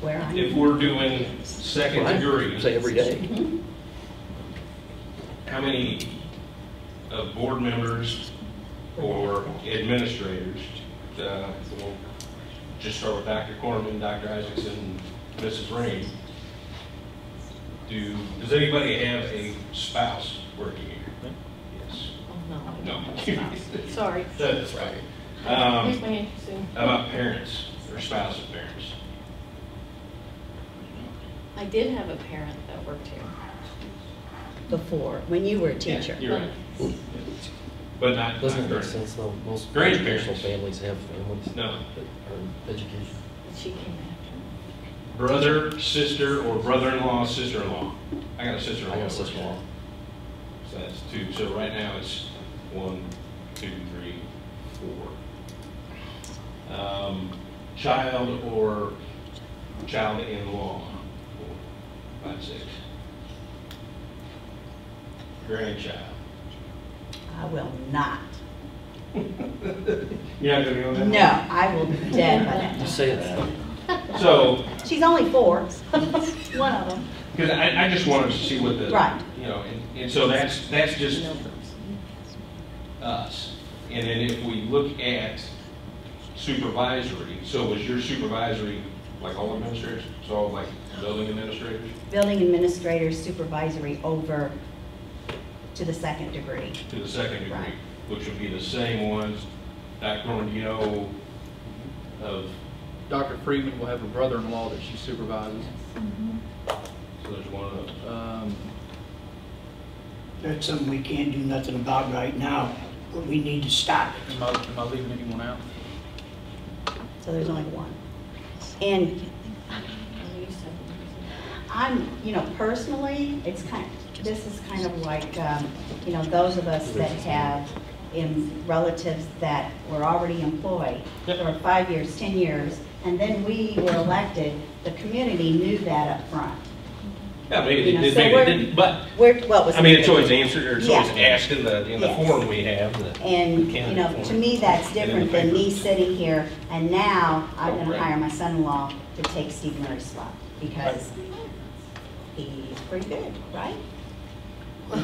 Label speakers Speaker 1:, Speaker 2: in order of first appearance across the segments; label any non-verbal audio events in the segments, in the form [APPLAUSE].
Speaker 1: where I
Speaker 2: If
Speaker 1: am.
Speaker 2: we're doing second
Speaker 3: Right.
Speaker 2: degree,
Speaker 3: Say every day.
Speaker 2: how many of board members or administrators, uh, we'll just start with Dr. Corman, Dr. Isaacson, Mrs. Rain, do, does anybody have a spouse working here? Yes.
Speaker 1: Oh, no.
Speaker 2: No. [LAUGHS]
Speaker 1: Sorry.
Speaker 2: That's right.
Speaker 1: Here's
Speaker 2: Um,
Speaker 1: my hand, Sue.
Speaker 2: How about parents or spouse of parents?
Speaker 4: I did have a parent that worked here.
Speaker 1: Before, when you were a teacher.
Speaker 2: You're right. But not, not
Speaker 3: Doesn't it make
Speaker 2: current.
Speaker 3: sense though? Most
Speaker 2: Grandparents.
Speaker 3: international families have families that
Speaker 2: No.
Speaker 3: are education.
Speaker 4: and She came after.
Speaker 2: brother, sister, or brother-in-law, sister-in-law. I got a sister-in-law.
Speaker 3: I got a sister-in-law.
Speaker 2: So that's two. So right now it's one, two, three, four. Um, child or child-in-law, four, five, six. Grandchild.
Speaker 1: I will not.
Speaker 2: You're not gonna be on that? one?
Speaker 1: No, I will be dead by that
Speaker 3: You
Speaker 1: time.
Speaker 3: say that,
Speaker 2: So,
Speaker 1: She's only four. [LAUGHS] One of them.
Speaker 2: because I, I just wanted to see what the.
Speaker 1: Right.
Speaker 2: You know, and, and so that's, that's just
Speaker 4: Numbers.
Speaker 2: us. And then if we look at supervisory, so was your supervisory like all administrators? So all like building administrators
Speaker 1: Building administrator supervisory over to the second degree.
Speaker 2: to the second degree,
Speaker 1: Right.
Speaker 2: which would be the same ones. Dr. Norman, do you know of,
Speaker 5: Dr. Freeman will have a brother-in-law that she supervises.
Speaker 2: so there's one of those.
Speaker 5: Um,
Speaker 6: That's something we can't do nothing about right now, but we need to stop it.
Speaker 5: Am I, am I leaving anyone out?
Speaker 1: So there's only one. And
Speaker 4: And you said numbers.
Speaker 1: I'm, you know, personally, it's kind, this is kind of like, um, you know, those of us that have in relatives that were already employed for five years, 10 years, and then we were elected, the community knew that up front.
Speaker 2: Yeah, maybe
Speaker 1: You
Speaker 2: they
Speaker 1: know,
Speaker 2: did,
Speaker 1: so
Speaker 2: maybe
Speaker 1: we're-
Speaker 2: they didn't, but,
Speaker 1: Where, what was?
Speaker 2: I mean, it's always answered, or it's always
Speaker 1: Yeah.
Speaker 2: asked in the, in the
Speaker 1: Yes.
Speaker 2: form we have. that-
Speaker 1: And, you know, to me, that's
Speaker 2: And in the Oh,
Speaker 1: different than me
Speaker 2: papers.
Speaker 1: sitting here, and now I'm gonna
Speaker 2: Right.
Speaker 1: hire my son-in-law to take Steve Murray's spot, because he's pretty good, right?
Speaker 6: You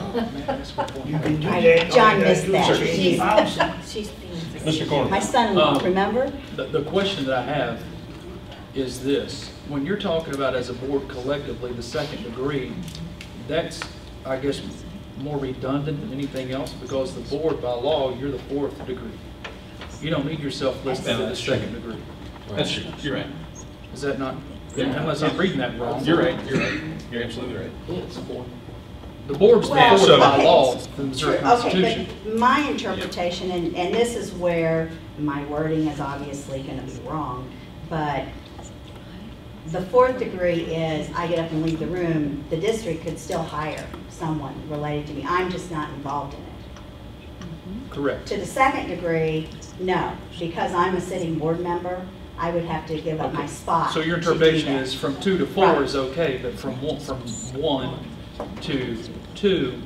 Speaker 6: can do
Speaker 1: I-
Speaker 6: that.
Speaker 1: John missed that.
Speaker 6: Sixty thousand.
Speaker 4: [LAUGHS] She's being.
Speaker 2: Mr. Corman.
Speaker 1: My son-in-law,
Speaker 5: Um,
Speaker 1: remember?
Speaker 5: The, the question that I have is this. When you're talking about as a board collectively, the second degree, that's, I guess, more redundant than anything else because the board by law, you're the fourth degree. You don't need yourself listed as the second degree.
Speaker 2: That's, true. you're right.
Speaker 5: Is that not, unless I'm reading that wrong?
Speaker 2: You're right, you're right. You're absolutely right.
Speaker 3: yeah, it's four.
Speaker 5: The board's the
Speaker 1: Well,
Speaker 5: fourth by
Speaker 1: okay.
Speaker 5: law, the Missouri
Speaker 1: Okay,
Speaker 5: Constitution.
Speaker 1: but my interpretation, and, and this is where my wording is obviously gonna be wrong, but the fourth degree is I get up and leave the room, the district could still hire someone related to me, I'm just not involved in it.
Speaker 5: Correct.
Speaker 1: To the second degree, no, because I'm a sitting board member, I would have to give up my spot.
Speaker 5: So your
Speaker 1: to do
Speaker 5: interpretation
Speaker 1: that.
Speaker 5: is from two to four
Speaker 1: Right.
Speaker 5: is okay, but from one, from one to two,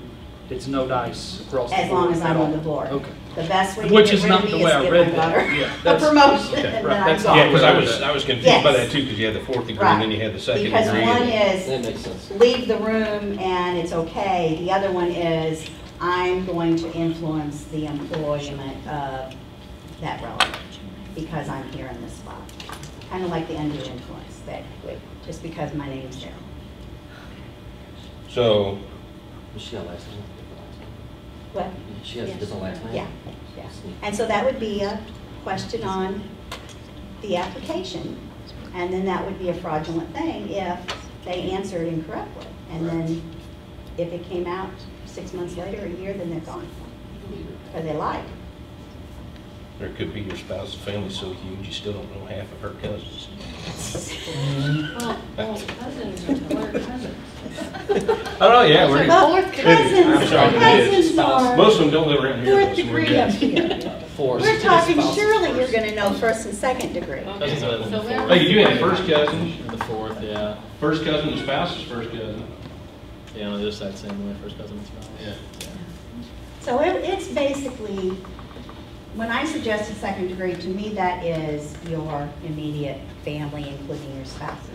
Speaker 5: it's no dice across the board
Speaker 1: As long as
Speaker 5: at
Speaker 1: I'm on
Speaker 5: all.
Speaker 1: the board.
Speaker 5: Okay.
Speaker 1: The best way to
Speaker 5: Which
Speaker 1: get
Speaker 5: is
Speaker 1: rid of
Speaker 5: not
Speaker 1: me
Speaker 5: the
Speaker 1: is
Speaker 5: way I
Speaker 1: get
Speaker 5: read
Speaker 1: my
Speaker 5: that.
Speaker 1: daughter [LAUGHS]
Speaker 5: Yeah,
Speaker 1: a
Speaker 5: that's-
Speaker 1: promotion,
Speaker 5: okay,
Speaker 1: and
Speaker 5: right,
Speaker 1: then I'm
Speaker 5: that's-
Speaker 1: gone.
Speaker 2: Yeah, because I was, I was confused by
Speaker 1: Yes.
Speaker 2: that too, because you had the fourth degree
Speaker 1: Right.
Speaker 2: and then you had the second degree.
Speaker 1: Because one
Speaker 3: That
Speaker 1: is
Speaker 3: makes sense.
Speaker 1: leave the room and it's okay. The other one is I'm going to influence the employment of that relative because I'm here in this spot. Kind of like the undue influence that, just because my name's there.
Speaker 2: So,
Speaker 3: She got last name.
Speaker 1: What?
Speaker 3: She has a different last name.
Speaker 1: Yeah, yeah. And so that would be a question on the application. And then that would be a fraudulent thing if they answered incorrectly. And then if it came out six months later, a year, then they're gone. Or they lied.
Speaker 2: there could be your spouse's family so huge, you still don't know half of her cousins.
Speaker 4: Well, Oh, well, cousins are, we're cousins.
Speaker 2: Oh, no, yeah, we're,
Speaker 1: Well,
Speaker 2: I'm
Speaker 1: cousins,
Speaker 2: sorry, it is.
Speaker 1: cousins are
Speaker 2: most of them don't live around here. though,
Speaker 1: fourth
Speaker 2: so we're
Speaker 1: degree up
Speaker 2: good.
Speaker 1: here.
Speaker 3: Four.
Speaker 1: We're talking surely you're gonna know first and second degree.
Speaker 4: Okay.
Speaker 5: Cousins
Speaker 4: So where-
Speaker 2: Like, you do have first cousins,
Speaker 7: The fourth, yeah.
Speaker 2: first cousin, the spouse's first cousin.
Speaker 7: Yeah, on the other side, same way, first cousin, spouse.
Speaker 2: Yeah.
Speaker 1: So it, it's basically, when I suggested second degree, to me, that is your immediate family, including your spouses.